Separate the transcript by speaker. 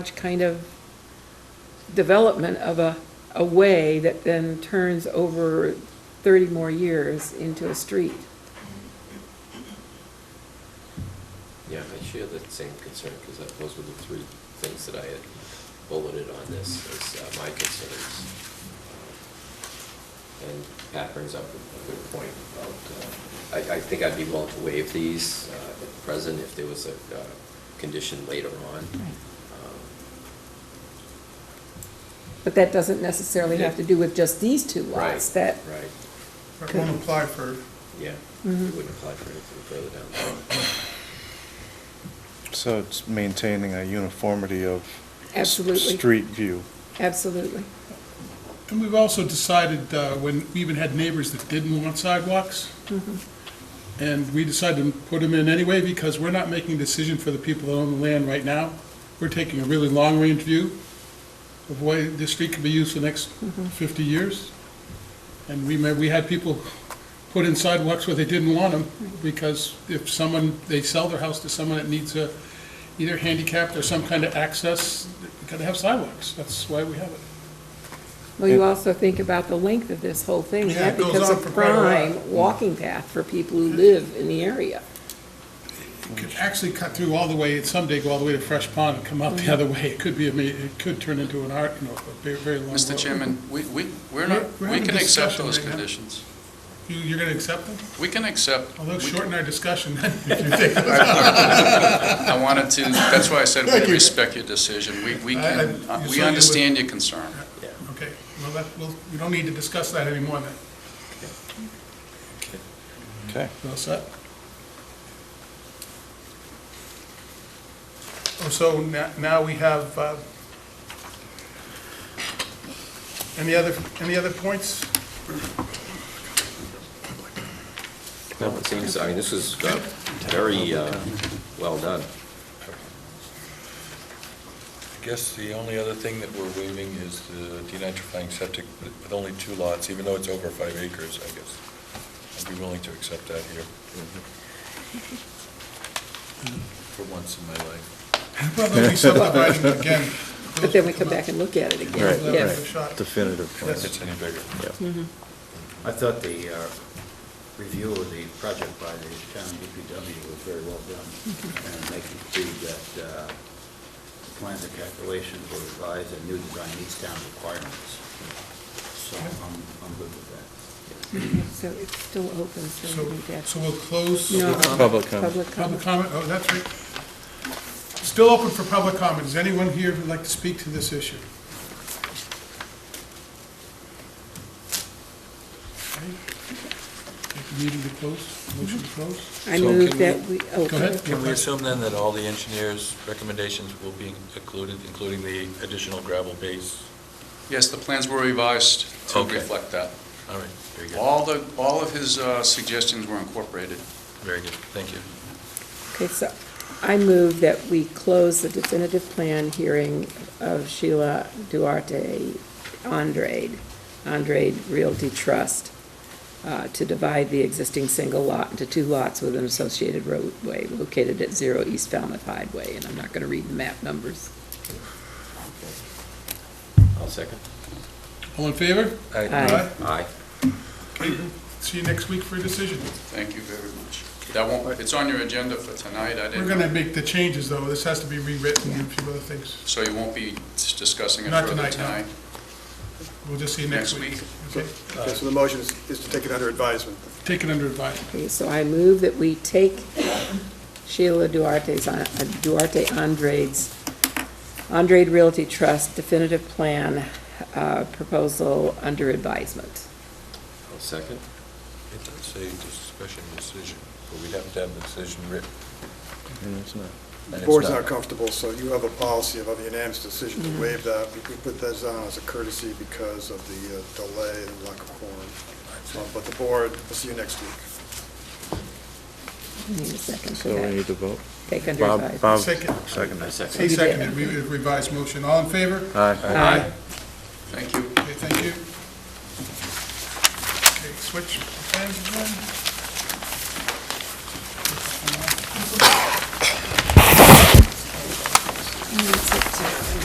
Speaker 1: much kind of development of a, a way that then turns over 30 more years into a street.
Speaker 2: Yeah, I share that same concern, because those were the three things that I had bulleted on this as uh, my concerns. Uh, And Pat brings up a good point about, uh, I, I think I'd be willing to waive these uh, at present if there was a uh, condition later on. Um,
Speaker 1: But that doesn't necessarily have to do with just these two lots.
Speaker 2: Right,
Speaker 1: That,
Speaker 2: Right,
Speaker 3: It won't apply for,
Speaker 2: yeah. We
Speaker 1: Mhm.
Speaker 2: wouldn't apply for anything further down the line.
Speaker 4: So it's maintaining a uniformity of. s-
Speaker 1: Absolutely.
Speaker 4: Street view.
Speaker 1: absolutely.
Speaker 3: and we've also decided, uh, when, we even had neighbors that didn't want sidewalks, and we decided to put them in anyway, because we're not making a decision for the people that own the land right now. We're taking a really long-range view of why this street could be used for the next fifty years. And we may, we had people put in sidewalks where they didn't want them, because if someone, they sell their house to someone that needs a, either handicapped or some kind of access, they gotta have sidewalks, that's why we have it.
Speaker 1: Well, you
Speaker 4: Yeah.
Speaker 1: also think about the length of this whole thing.
Speaker 3: Yeah,
Speaker 1: That
Speaker 3: it goes
Speaker 1: becomes
Speaker 3: on
Speaker 1: a
Speaker 3: for quite a while.
Speaker 1: prime walking path for people who live in the area.
Speaker 3: could actually cut through all the way, someday go all the way to Fresh Pond and come out the other way. It could be, a ma- it could turn into an art, you know, a very, very long road.
Speaker 5: Mr. Chairman, we, we, we're
Speaker 3: We're-
Speaker 5: not,
Speaker 3: we're
Speaker 5: we
Speaker 3: having
Speaker 5: can accept
Speaker 3: discussion
Speaker 5: those
Speaker 3: right now.
Speaker 5: conditions.
Speaker 3: You, you're gonna accept them?
Speaker 5: We can accept.
Speaker 3: Although
Speaker 5: we-
Speaker 3: shorten our discussion if you think. I-
Speaker 5: I wanted to, that's why I said
Speaker 3: Thank
Speaker 5: we
Speaker 3: you.
Speaker 5: respect your decision. We, we
Speaker 3: I-
Speaker 5: can,
Speaker 3: I-
Speaker 5: uh,
Speaker 3: you saw
Speaker 5: we
Speaker 3: you
Speaker 5: understand your concern.
Speaker 3: Okay, well, that, well, we don't need to discuss that anymore then.
Speaker 4: Okay.
Speaker 3: You all set? Oh, So na- now we have, uh, any other, any other points?
Speaker 2: No, it seems, I mean, this was uh, very uh, well done.
Speaker 6: I guess the only other thing that we're waiving is the denitrifying septic with only two lots, even though it's over five acres, I guess. I'd be willing to accept that here. For once in my life.
Speaker 3: Well, they'll be subdividing again.
Speaker 1: But then we come back and look at it
Speaker 3: Right,
Speaker 1: again.
Speaker 3: right.
Speaker 1: Yes. Mm-hmm.
Speaker 3: Shot.
Speaker 4: Definitive plan.
Speaker 6: If it's any bigger.
Speaker 7: I thought the uh, review of the project by the town DPW was very well done, and they concluded that uh, the plans and calculations were revised and new design meets town requirements. So I'm, I'm good with that.
Speaker 1: Okay, So it's still open, so
Speaker 3: So,
Speaker 1: we need to.
Speaker 3: so we'll close.
Speaker 1: No.
Speaker 4: Public comment.
Speaker 1: Public
Speaker 3: Public
Speaker 1: comment.
Speaker 3: comment, oh, that's right. Still open for public comment. Is anyone here who'd like to speak to this issue? Okay. Take the Meeting to close, motion to close.
Speaker 1: I
Speaker 6: So
Speaker 1: move
Speaker 6: can
Speaker 1: that
Speaker 6: we-
Speaker 1: we, oh,
Speaker 3: Go ahead.
Speaker 6: Can we assume then that all the engineers' recommendations will be included, including the additional gravel base?
Speaker 5: Yes, the plans were revised to
Speaker 6: Okay.
Speaker 5: reflect that.
Speaker 6: All right, very good,
Speaker 5: All the, all of his uh, suggestions were incorporated.
Speaker 6: very good, thank you.
Speaker 1: Okay, so I move that we close the definitive plan hearing of Sheila Duarte Andrade, Andrade Realty Trust, uh, to divide the existing single lot into two lots with an associated roadway located at zero East Falmouth Highway, and I'm not going to read the map numbers.
Speaker 2: I'll second.
Speaker 3: All in favor?
Speaker 6: All right,
Speaker 1: Aye.
Speaker 2: Aye.
Speaker 3: Okay, See you next week for a decision.
Speaker 5: Thank you very much. That won't, it's on your agenda for tonight. I
Speaker 3: We're
Speaker 5: didn't,
Speaker 3: gonna make the changes, though. This has to be rewritten and a few other things.
Speaker 5: so you won't be discussing it
Speaker 3: Not
Speaker 5: further
Speaker 3: tonight, no.
Speaker 5: tonight?
Speaker 3: We'll just see you next
Speaker 5: Next
Speaker 3: week.
Speaker 5: week.
Speaker 3: Okay.
Speaker 8: Okay, so the motion is is to take it under advisement.
Speaker 3: Take it under advisement.
Speaker 1: Okay, so I move that we take Sheila Duarte's, uh, Duarte Andrade's, Andrade Realty Trust definitive plan uh, proposal under advisement.
Speaker 2: I'll second.
Speaker 6: It does say discussion decision, but we'd have to have the decision written.
Speaker 4: And it's not-
Speaker 6: and
Speaker 8: The
Speaker 6: it's
Speaker 8: board's not comfortable, so you have a policy of a unanimous decision to waive that. We we put that on as a courtesy because of the uh, delay and lack of quorum. Uh, But the board, we'll see you next week.
Speaker 1: I Need a second for
Speaker 4: So we
Speaker 1: that.
Speaker 4: need to vote.
Speaker 1: Take under
Speaker 4: Bob,
Speaker 1: advisement.
Speaker 4: Bob,
Speaker 3: Second.
Speaker 2: I
Speaker 4: second.
Speaker 2: second.
Speaker 3: He seconded, we revised motion. All in favor?
Speaker 4: Aye.
Speaker 1: Aye.
Speaker 5: Thank you.
Speaker 3: Okay, thank you. Okay, switch plans again.